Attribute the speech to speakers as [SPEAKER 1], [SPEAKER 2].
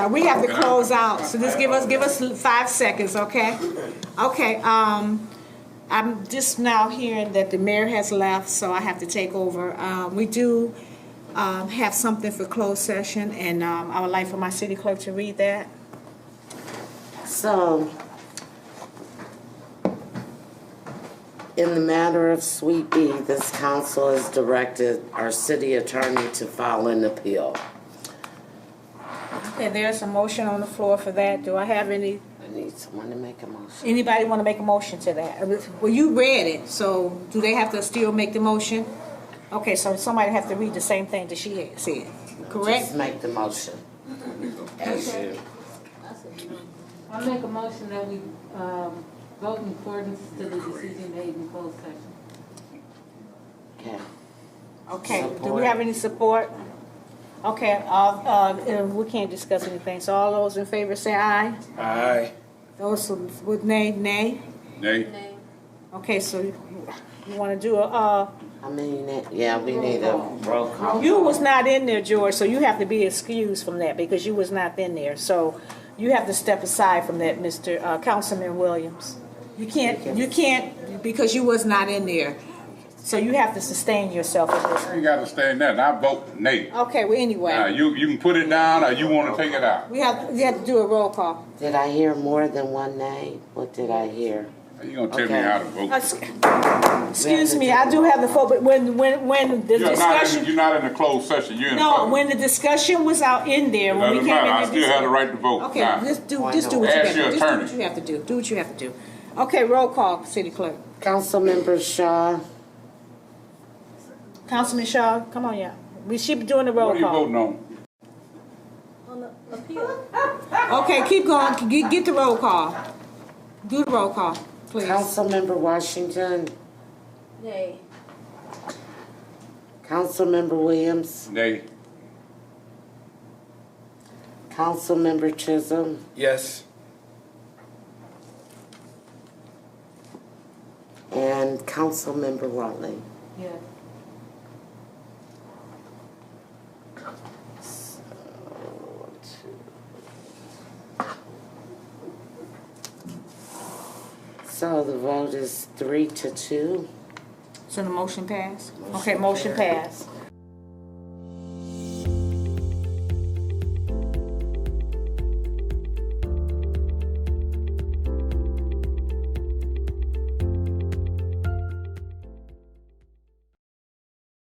[SPEAKER 1] Uh, We have to close out, so just give us, give us five seconds, okay? Okay, um, I'm just now hearing that the mayor has left, so I have to take over. Uh, we do, um, have something for closed session, and, um, I would like for my city clerk to read that.
[SPEAKER 2] So, in the matter of Sweet B, this council has directed our city attorney to file an appeal.
[SPEAKER 1] Okay, there's a motion on the floor for that. Do I have any,
[SPEAKER 2] I need someone to make a motion.
[SPEAKER 1] anybody want to make a motion to that? Uh, Well, you read it, so do they have to still make the motion? Okay, so somebody have to read the same thing that she said, correct?
[SPEAKER 2] Just make the motion. As you.
[SPEAKER 3] I make a motion that we um, vote in accordance to the decision made in closed session.
[SPEAKER 2] Okay.
[SPEAKER 1] Okay, do we have any support? Okay, uh, uh, we can't discuss anything, so all those in favor say aye.
[SPEAKER 4] Aye.
[SPEAKER 1] Those who would nay, nay.
[SPEAKER 4] Nay.
[SPEAKER 1] Okay, so you you wanna do a, uh,
[SPEAKER 2] I mean, it- yeah, we need a roll call.
[SPEAKER 1] You was not in there, George, so you have to be excused from that because you was not in there. So you have to step aside from that, Mr. uh, Councilman Williams. You can't, you can't, because you was not in there. So you have to sustain yourself in this.
[SPEAKER 4] You ain't gotta stand that, I vote nay.
[SPEAKER 1] Okay, well,
[SPEAKER 4] Now,
[SPEAKER 1] anyway,
[SPEAKER 4] you, you can put it down or you wanna take it out.
[SPEAKER 1] we have, we have to do a roll call.
[SPEAKER 2] Did I hear more than one name? What did I hear?
[SPEAKER 4] You gonna tell me how to vote.
[SPEAKER 1] Ex- Excuse me, I do have the phone, but when, when, when the
[SPEAKER 4] You're not, in-
[SPEAKER 1] discussion,
[SPEAKER 4] you're not in a closed session, you're in
[SPEAKER 1] no,
[SPEAKER 4] public.
[SPEAKER 1] when the discussion was out in there,
[SPEAKER 4] It
[SPEAKER 1] when we
[SPEAKER 4] Doesn't
[SPEAKER 1] came in.
[SPEAKER 4] matter, I
[SPEAKER 1] and
[SPEAKER 4] still have the right to vote.
[SPEAKER 1] Okay,
[SPEAKER 4] Now,
[SPEAKER 1] just do,
[SPEAKER 2] Why
[SPEAKER 1] just do
[SPEAKER 2] not?
[SPEAKER 1] what you
[SPEAKER 4] Ask
[SPEAKER 1] have,
[SPEAKER 4] your
[SPEAKER 1] just do what
[SPEAKER 4] attorney.
[SPEAKER 1] you have to do, do what you have to do. Okay, roll call, city clerk.
[SPEAKER 2] Councilmember Shaw,
[SPEAKER 1] Councilman Shaw, come on, yeah. We should be doing the roll
[SPEAKER 4] What are you
[SPEAKER 1] call.
[SPEAKER 4] voting on?
[SPEAKER 1] Okay, keep going, get, get the roll call. Do the roll call, please.
[SPEAKER 2] Councilmember Washington,
[SPEAKER 5] Nay.
[SPEAKER 2] Councilmember Williams,
[SPEAKER 4] Nay.
[SPEAKER 2] Councilmember Chisholm,
[SPEAKER 6] Yes.
[SPEAKER 2] and Councilmember Watley.
[SPEAKER 3] Yes.
[SPEAKER 2] So the vote is three to two.
[SPEAKER 1] So the motion passed? Okay, motion passed.